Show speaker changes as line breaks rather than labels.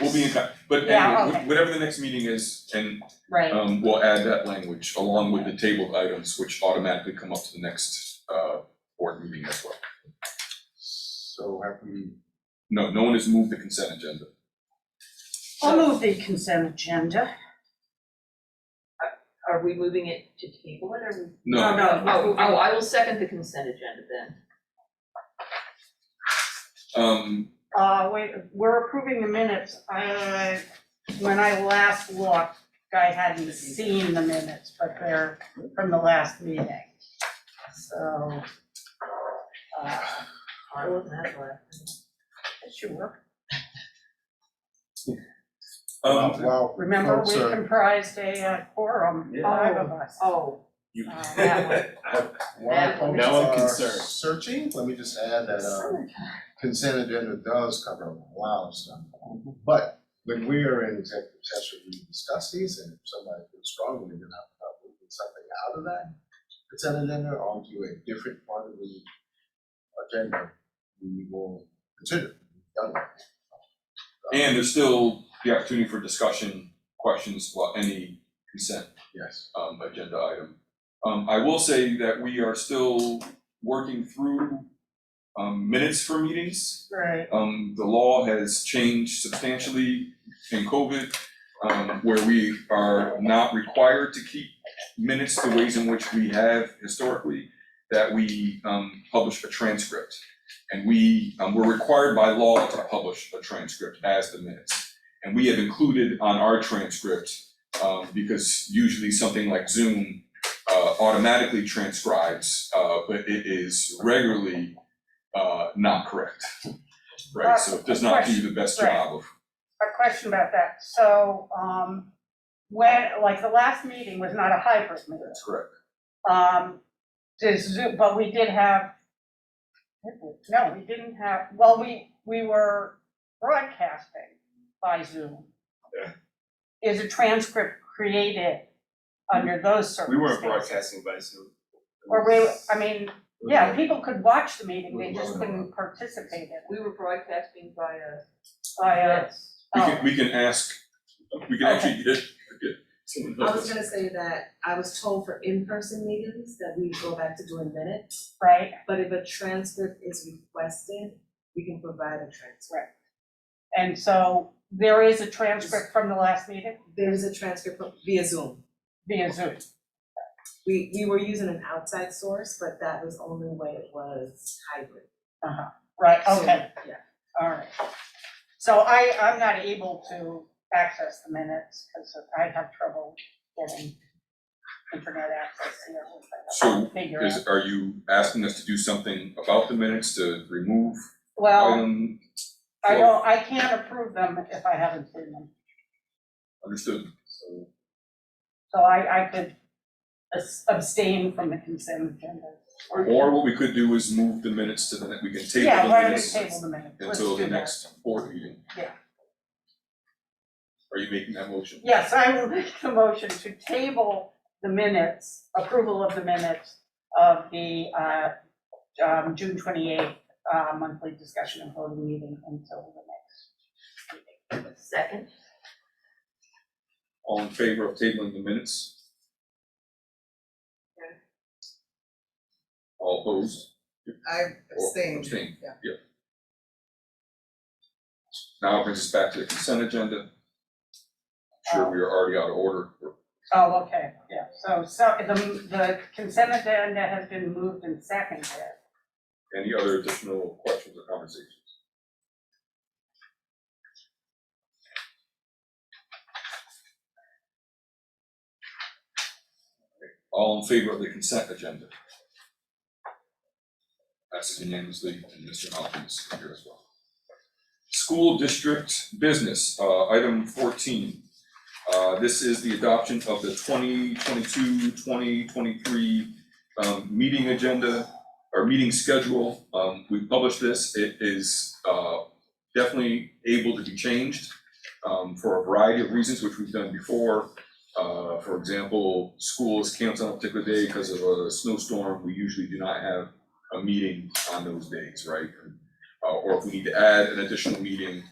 We'll be in touch, but
Yeah,
anyway,
okay.
wh- whatever the next meeting is, and
right,
um we'll add that language along with the tabled items, which automatically come up to the next uh board meeting as well.
So have we,
No, no one has moved the consent agenda.
I'll move the consent agenda.
Are we moving it to table it or?
No,
No,
Oh, oh, I will second the consent agenda then.
um,
Uh, wait, we're approving the minutes. I, when I last looked, I hadn't seen the minutes, but they're from the last meeting. So, uh,
I wasn't at the last.
it should work.
um,
well,
Remember, we
Folks are-
comprised a uh, quorum, five of us.
Oh,
you.
Uh,
that one.
while folks
Now I'm
are
concerned.
searching, let me just add that uh consent agenda does cover a lot of stuff. But when we are in executive session, we discuss these and if somebody feels strongly enough about uh, moving something out of that consent agenda onto a different part of the agenda, we will consider. it. Done.
And there's still the opportunity for discussion, questions, well, any consent
Yes.
um, agenda item. Um, I will say that we are still working through, um, minutes for meetings.
Right,
Um, the law has changed substantially in COVID, um, where we are not required to keep minutes the ways in which we have historically, that we, um, publish a transcript. And we, um, we're required by law to publish a transcript as the minutes. And we have included on our transcript, um, because usually something like Zoom, uh, automatically transcribes, uh, but it is regularly, uh, not correct. Right, so it does not do the best job of,
a question about that. So, um, when, like, the last meeting was not a hybrid meeting.
that's correct.
Um, there's Zoom, but we did have, no, we didn't have, well, we, we were broadcasting by Zoom.
Yeah.
Is a transcript created under those
We
circumstances?
weren't broadcasting by Zoom.
Or we, I mean, yeah, people could watch the meeting, they just couldn't participate in it.
we were broadcasting by a.
I, uh,
Yes.
We
oh,
can, we can ask, we can actually get, get someone
I
else.
was gonna say that I was told for in-person meetings that we go back to doing minutes,
right,
but if a transcript is requested, we can provide a transcript.
and so there is a transcript from the last meeting
There is a transcript via Zoom.
via Zoom.
We, we were using an outside source, but that was the only way it was hybrid.
Right,
So,
okay,
Yeah.
all right. So I, I'm not able to access the minutes because I have trouble getting internet access here. which I have to
So
Figure out.
Is, are you asking us to do something about the minutes to remove
Well,
item
I don't, I can't approve them if I haven't seen them.
understood? So
So I, I could abs- abstain from the consent agenda.
Or what we could do is move the minutes to the, ne- we can table
Yeah,
the
why don't we
minutes
table the minutes? Let's
until the
do that.
next board meeting.
Yeah.
Are you making that motion?
Yes, I will make the motion to table the minutes, approval of the minutes of the uh, um, June 28th uh, monthly discussion and voting meeting until the next.
Second,
All in favor of tabling the minutes?
Yeah.
All opposed?
I
Or
abstained.
Abstain,
yeah.
yeah. Now it brings us back to the consent agenda. I'm Sure, we are already out of order,
Oh, okay, yeah, so, so the, the consent agenda has been moved and seconded.
any other additional questions or conversations? All in favor of the consent agenda? Passes unanimously, and Mr. Hopkins is here as well. School district business, uh, item fourteen. Uh, this is the adoption of the 2022-2023 um, meeting agenda our meeting schedule, um, we published this, it is, uh, definitely able to be changed, um, for a variety of reasons, which we've done before. Uh, for example, school is canceled on a particular day because of a snowstorm, we usually do not have a meeting on those days, right? Uh, or if we need to add an additional meeting,